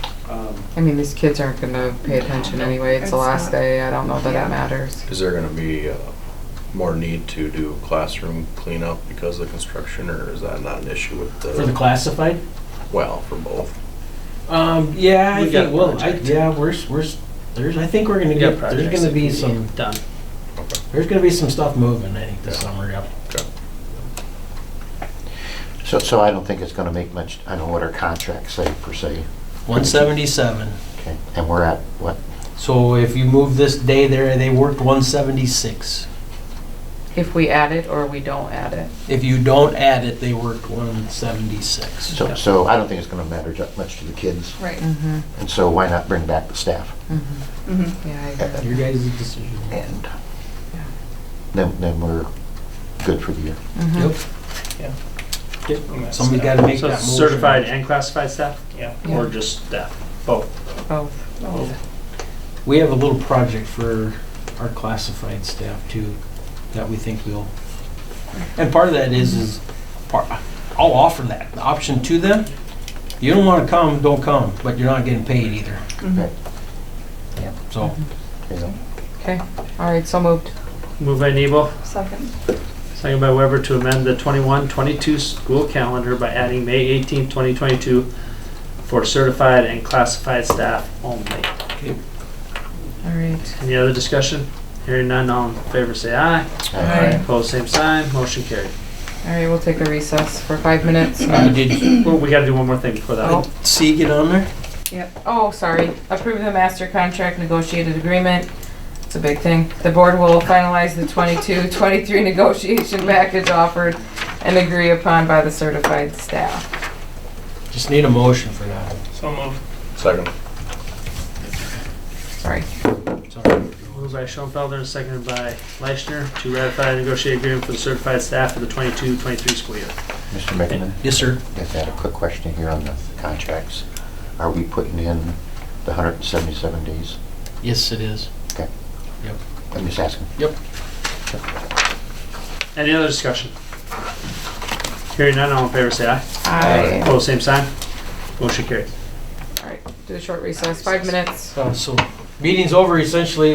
Um, I mean, these kids aren't gonna pay attention anyway. It's the It's last not- day. I don't know that Yeah. it matters. Is there gonna be uh, more need to do classroom cleanup because of construction, or is that not an issue with the? For the classified? Well, for both. Um, yeah, I We got think, well, I, project. yeah, we're, s- we're, s- there's, I think we're gonna We got get, there's projects gonna that be can some, Done. there's gonna be some stuff moving, I think, this Yeah. summer, yep. Okay. So, so I don't think it's gonna make much, I don't know what our contracts say per se, One seventy-seven. okay, and we're at, what, So if you move this day there, they worked one seventy-six. If we add it or we don't add it. If you don't add it, they worked one seventy-six. so, so I don't think it's gonna matter ju- much to the kids, Right. Mm-hmm. and so why not bring back the staff? Mm-hmm. Mhm. Yeah, I agree. Your guys' decision. And then, then we're good for the year. Mhm. Yep. Yeah. Somebody's gotta make So that motion. certified and classified staff? Yeah. Or Yeah. just staff, both. Both. We have a little project for our classified staff too, that we think we'll, and part of that is, is, par- I'll offer that option to them. You don't wanna come, don't come, but you're not getting paid either. Mhm. Yep. So, you know? Okay. All right. So moved. Move by Nebo, Second. second by Weber to amend the 21-22 school calendar by adding May eighteenth, twenty twenty-two for certified and classified staff only. All right. Any other discussion? Hearing none, all in favor say aye. Aye. Opposed, same sign, motion carried. All right. We'll take a recess for five minutes. uh, did Well, we gotta do one more thing before that. Oh. C get on there? Oh, sorry. Approve the master contract negotiated agreement. It's a big thing. The board will finalize the 22-23 negotiation package offered and agree upon by the certified staff. Just need a motion for that. So moved. Second. Sorry. Moved by Schoenfelder and seconded by Leishner to ratify the negotiated agreement for the certified staff for the 22-23 school year. Mr. McKinnon, Yes, sir. uh, just had a quick question here on the contracts. Are we putting in the hundred and seventy-seven days? Yes, it is. I'm just asking. Any other discussion? Hearing none, all in favor say aye. Aye. Opposed, same sign. Motion carried. All right. Do a short recess, five minutes. So, so Uh, meeting's over essentially,